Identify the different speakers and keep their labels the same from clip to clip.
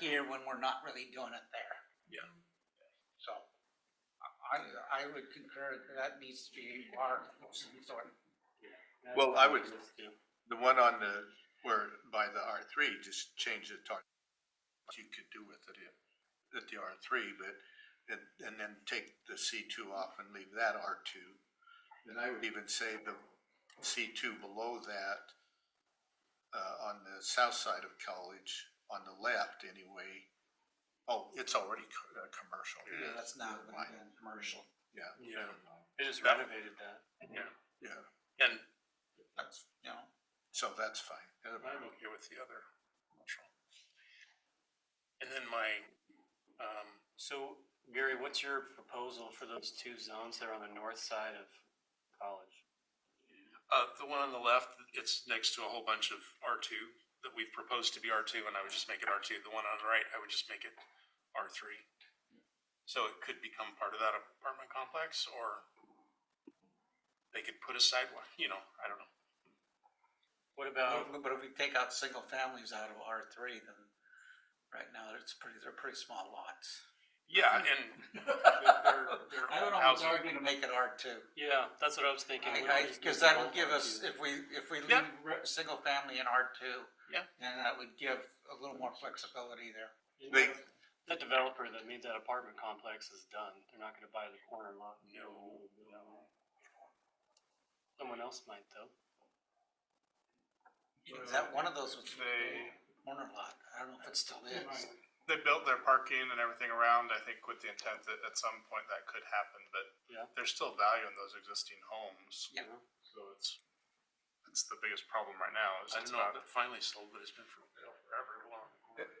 Speaker 1: here when we're not really doing it there.
Speaker 2: Yeah.
Speaker 1: So I, I would concur that that needs to be our, sort of-
Speaker 2: Well, I would, the one on the, where, by the R three, just change the target. You could do with it at- at the R three, but, and, and then take the C two off and leave that R two. And I would even say the C two below that, uh, on the south side of college, on the left anyway. Oh, it's already co- uh, commercial.
Speaker 1: yeah, that's not
Speaker 2: Why?
Speaker 1: been commercial.
Speaker 2: Yeah,
Speaker 3: Yeah.
Speaker 2: never mind.
Speaker 3: They just renovated that.
Speaker 2: yeah,
Speaker 3: And
Speaker 1: That's, you know,
Speaker 2: so that's fine. Never mind.
Speaker 3: I'm okay with the other commercial. And then my, um,
Speaker 4: So Gary, what's your proposal for those two zones that are on the north side of college?
Speaker 5: Uh, the one on the left, it's next to a whole bunch of R two that we've proposed to be R two, and I would just make it R two. The one on the right, I would just make it R three. So it could become part of that apartment complex, or they could put a sidewalk, you know, I don't know.
Speaker 4: What
Speaker 5: Uh,
Speaker 4: about,
Speaker 1: but if we take out single families out of R three, then right now it's pretty, they're pretty small lots.
Speaker 5: Yeah, and they're, they're
Speaker 1: I don't know, it's
Speaker 5: housing.
Speaker 1: arguing to make it R two.
Speaker 4: yeah, that's what I was thinking. Why
Speaker 1: I,
Speaker 4: don't
Speaker 1: I,
Speaker 4: we just
Speaker 1: cause
Speaker 4: make it
Speaker 1: that'll
Speaker 4: all
Speaker 1: give
Speaker 4: R2?
Speaker 1: us, if we, if we leave
Speaker 5: Yeah.
Speaker 1: re- single family in R two.
Speaker 5: Yeah.
Speaker 1: Then that would give a little more flexibility there.
Speaker 2: They,
Speaker 4: The developer that made that apartment complex is done. They're not gonna buy the corner lot.
Speaker 5: No.
Speaker 4: Someone else might though.
Speaker 1: Is that one of those was
Speaker 6: They-
Speaker 1: corner lot? I don't know if it still is.
Speaker 6: They built their parking and everything around, I think with the intent that at some point that could happen, but
Speaker 4: Yeah.
Speaker 6: there's still value in those existing homes.
Speaker 1: Yeah.
Speaker 6: So it's, that's the biggest problem right now, is
Speaker 5: I
Speaker 6: it's
Speaker 5: don't know,
Speaker 6: not,
Speaker 5: if it finally sold, but it's been for forever long.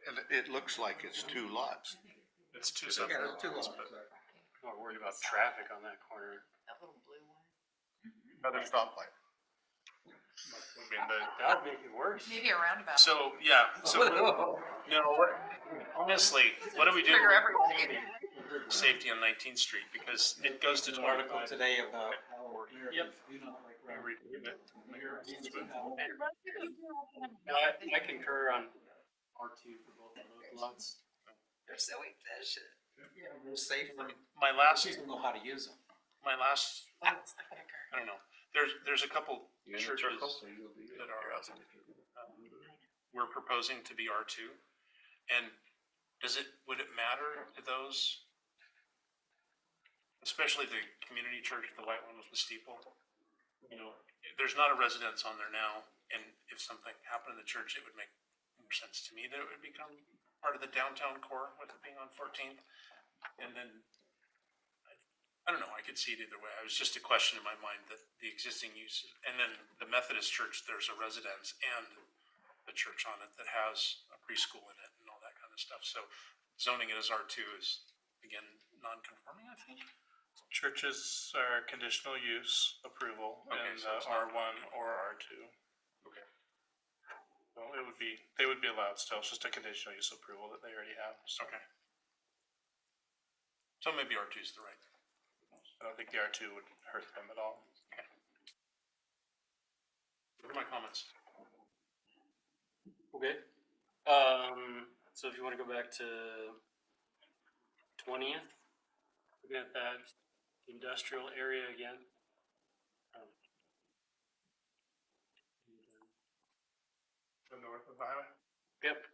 Speaker 2: and it looks like it's two lots.
Speaker 6: it's two
Speaker 1: Yeah,
Speaker 6: separate
Speaker 1: they're two
Speaker 6: lots,
Speaker 1: lots,
Speaker 6: but
Speaker 1: but-
Speaker 4: Not worried about traffic on that corner.
Speaker 7: That little blue one.
Speaker 2: Another stoplight.
Speaker 6: I mean, the,
Speaker 4: That would make it worse.
Speaker 7: Maybe a roundabout.
Speaker 5: So, yeah, so, no, what, honestly, what do we do?
Speaker 7: Trigger everyone.
Speaker 5: Safety on Nineteenth Street, because it goes to.
Speaker 4: An article
Speaker 1: Today about.
Speaker 4: Yep. No, I, I concur on R two for both of those lots.
Speaker 7: They're so efficient.
Speaker 1: Safe,
Speaker 5: My last,
Speaker 1: she's gonna know how to use them.
Speaker 5: my last
Speaker 7: That's the kicker.
Speaker 5: I don't know, there's, there's a couple churches that are, um, we're proposing to be R two. And does it, would it matter to those? Especially the community church, the white one with the steeple? You know, there's not a residence on there now, and if something happened to the church, it would make more sense to me that it would become part of the downtown core with it being on Fourteenth. And then I don't know, I could see it either way. It was just a question in my mind that the existing uses, and then the Methodist church, there's a residence and a church on it that has a preschool in it and all that kind of stuff. So zoning it as R two is, again, non-conforming, I think.
Speaker 3: churches are conditional use approval
Speaker 5: Okay,
Speaker 3: in
Speaker 5: so
Speaker 3: the
Speaker 5: it's
Speaker 3: R
Speaker 5: not-
Speaker 3: one or R two.
Speaker 5: Okay.
Speaker 3: Well, it would be, they would be allowed still, it's just a conditional use approval that they already have, so
Speaker 5: Okay. So maybe R two is the right.
Speaker 3: I don't think the R two would hurt them at all.
Speaker 5: What are my comments?
Speaker 4: Okay. Um, so if you wanna go back to twentieth, we got that industrial area again. Um,
Speaker 6: the north of the highway.
Speaker 4: Yep.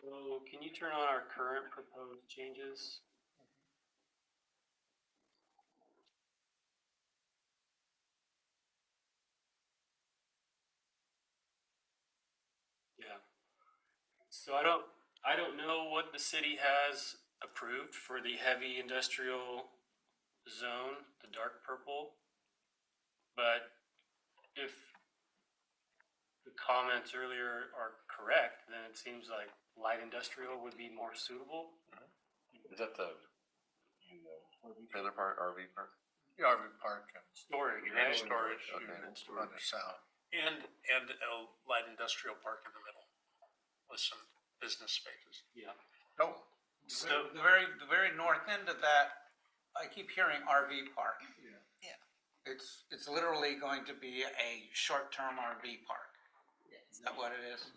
Speaker 4: So can you turn on our current proposed changes? Yeah. So I don't, I don't know what the city has approved for the heavy industrial zone, the dark purple. But if the comments earlier are correct, then it seems like light industrial would be more suitable.
Speaker 8: Is that the trailer park, RV park?
Speaker 2: Yeah, RV park and
Speaker 4: Storage,
Speaker 5: And
Speaker 4: right?
Speaker 5: storage
Speaker 8: Okay.
Speaker 2: on the south.
Speaker 5: and, and a light industrial park in the middle with some business spaces.
Speaker 4: Yeah.
Speaker 2: No,
Speaker 4: So-
Speaker 1: The very, the very north end of that, I keep hearing RV park.
Speaker 7: Yeah.
Speaker 1: It's, it's literally going to be a short-term RV park. Is that what it is?